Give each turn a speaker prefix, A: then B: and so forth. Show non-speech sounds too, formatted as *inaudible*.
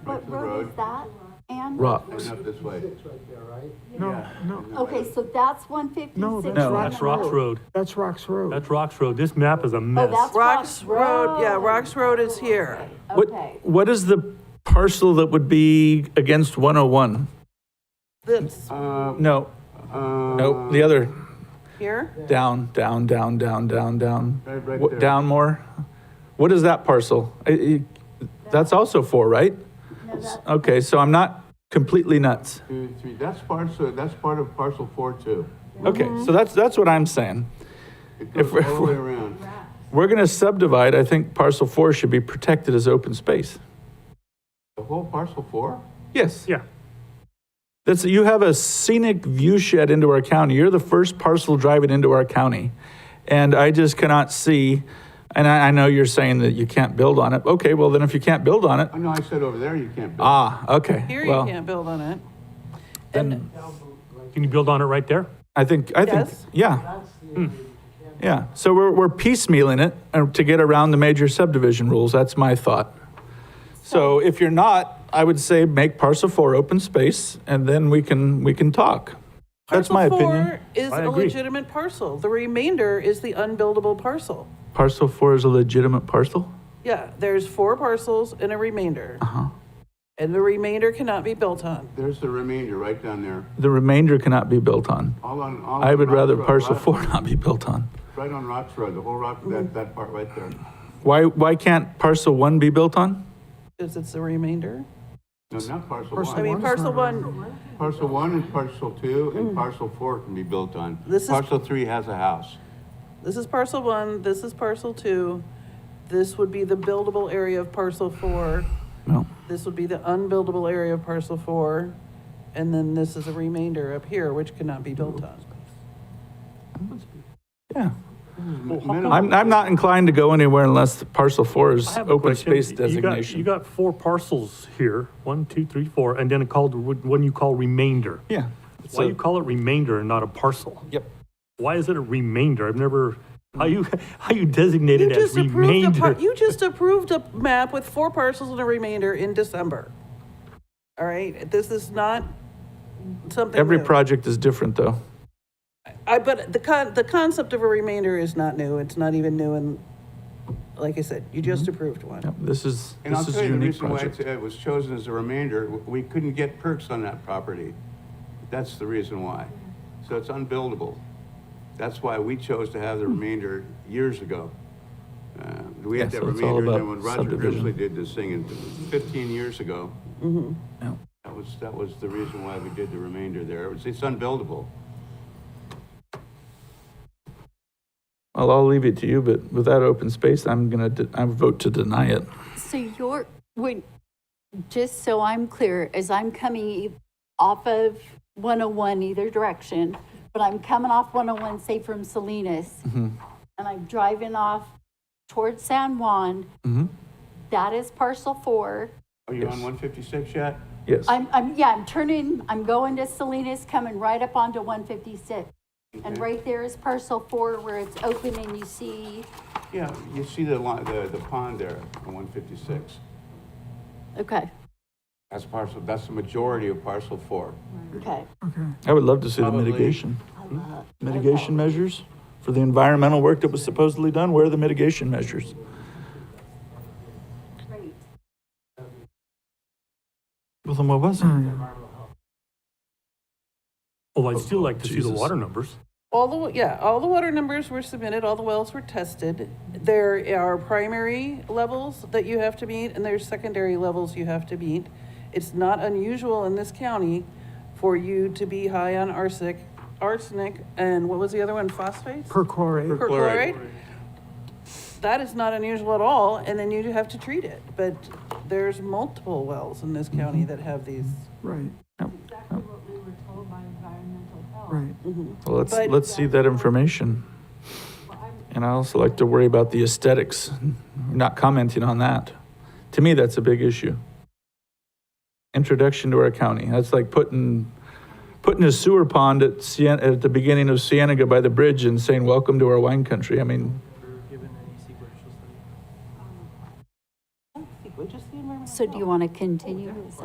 A: road is
B: Road.
A: that, Ann?
C: Rocks.
B: Going up this way.
D: No,
B: Yeah.
D: no,
A: Okay, so that's one
D: No,
A: fifty-six.
D: that's
C: No,
D: Rocks
C: that's Rocks Road.
D: that's Rocks Road.
C: That's Rocks Road. This map
E: Oh,
C: is a mess.
A: Oh, that's- Rocks
E: Rocks Road, yeah,
A: Road.
E: Rocks Road is here.
A: Okay,
F: What, what is the parcel that would be against 101?
E: This,
B: Um,
F: No,
B: uh,
F: no, the other,
E: here,
F: down, down, down, down, down, down.
B: Right, right
F: What-
B: there.
F: Down more? What is that parcel? I- I- That's also four, right?
A: no, that's,
F: Okay, so I'm not completely nuts.
B: Two, three, that's part, so that's part of parcel four too.
F: Okay,
A: Mm-hmm.
F: so that's, that's what I'm saying.
B: It
F: If
B: goes
F: we're-
B: all the way around.
F: We're going to subdivide, I think parcel four should be protected as open space.
B: The whole parcel four?
F: Yes.
C: Yeah.
F: That's, you have a scenic view shed into our county. You're the first parcel driving into our county. And I just cannot see, and I, I know you're saying that you can't build on it. Okay, well then if you can't build on it,
B: I know Oh, I said over there you can't build.
F: ah, okay.
E: here you
F: well,
E: can't build on it.
F: Then
C: Can you build on it right there?
F: I think, I think,
E: Yes.
F: yeah. Yeah, so we're, we're piecemealing it uh, to get around the major subdivision rules. That's my thought. So if you're not, I would say make parcel four open space and then we can, we can talk. That's my
E: Parcel four
F: opinion.
E: Is
C: I
E: a
C: agree.
E: legitimate parcel. The remainder is the unbuildable parcel.
F: Parcel four is a legitimate parcel?
E: Yeah, there's four parcels and a remainder. And the remainder cannot be built on.
B: There's the remainder right down there,
F: The remainder cannot be built on.
B: all on, all.
F: I
B: on
F: would
B: Rocks
F: rather
B: Road,
F: parcel
B: right-
F: four *laughs* not be built on.
B: Right on Rocks Road, the whole rock, that, that part right there.
F: Why, why can't parcel one be built on?
E: Is it's the remainder?
B: No, not parcel
D: Parcel
E: I
B: one.
E: mean,
D: One's not
E: parcel
D: a
E: one,
B: Parcel one and parcel two and parcel four can be built on.
E: This is-
B: Parcel three has a house.
E: this is parcel one, this is parcel two. This would be the buildable area of parcel four.
F: No.
E: This would be the unbuildable area of parcel four. And then this is a remainder up here, which cannot be built on.
F: Yeah.
B: Minimum.
F: I'm, I'm not inclined to go anywhere unless the parcel four is
C: I have a
F: open
C: question.
F: space
C: You got- You
F: designation.
C: got four parcels here, one, two, three, four, and then a called, one you call remainder.
F: Yeah.
C: Why
F: So-
C: you call it remainder and not a parcel?
F: Yep.
C: Why is it a remainder? I've never, how you, *laughs* how you designate
E: You
C: it as
E: just approved a, par-
C: remainder?
E: you just approved a map with four parcels and a remainder in December. All right, this is not something.
F: Every
E: new.
F: project is different though.
E: I, but the con, the concept of a remainder is not new. It's not even new and, like I said, you just approved
F: Mm-hmm. Yep,
E: one.
F: This is,
B: And I'll
F: this is
B: tell
F: a
B: you the
F: unique
B: reason why it's-
F: project.
B: it was chosen as a remainder, w- we couldn't get perks on that property. That's the reason why. So it's unbuildable. That's why we chose to have the
F: Hmm.
B: remainder years ago. Uh, We had
F: Yeah,
B: that
F: so it's all
B: remainder, and then
F: about
B: when Roger
F: subdivision. Mm-hmm.
B: Grizzly did this thing in fifteen years ago,
F: Yeah.
B: that was, that was the reason why we did the remainder there. It was- It's unbuildable.
F: Well, I'll leave it to you, but without open space, I'm gonna, de- I vote to deny it.
A: so you're, when, just so I'm clear, as I'm coming e- off of one oh one either direction, but I'm coming off one oh one, say from Salinas, and I'm driving off towards San Juan,
F: Mhm.
A: that is parcel four.
B: Are you on
F: Yes.
B: one fifty-six yet?
F: Yes.
A: I'm, I'm, yeah, I'm turning, I'm going to Salinas, coming right up onto one fifty-six. And right there is parcel four where it's open and you see,
B: Yeah, you see the line, the, the pond there on one fifty-six.
A: okay,
B: That's parcel, that's the majority of parcel four.
A: okay. Uh,
F: I would love to see the
B: Probably-
F: mitigation. Mitigation measures for the environmental work that was supposedly done, where are the mitigation measures?
A: Great.
F: Well, then what was it?
C: Oh, I'd still like to see the
F: Jesus.
C: water numbers.
E: All the, wa- yeah, all the water numbers were submitted, all the wells were tested. There are primary levels that you have to meet and there's secondary levels you have to meet. It's not unusual in this county for you to be high on arsenic, arsenic, and what was the other one, phosphates?
D: Perchlorate.
E: perchlorate. That is not unusual at all, and then you do have to treat it. But there's multiple wells in this county that have these.
D: Right,
G: exactly what we were told by environmental health.
D: right.
F: Mm-hmm. Well, let's,
E: But-
F: let's see that information. And I also like to worry about the aesthetics, not commenting on that. To me, that's a big issue. Introduction to our county, that's like putting, putting a sewer pond at Sien, at the beginning of Cienega by the bridge and saying, welcome to our wine country. I mean,
E: Just the environmental.
A: So do you want to continue?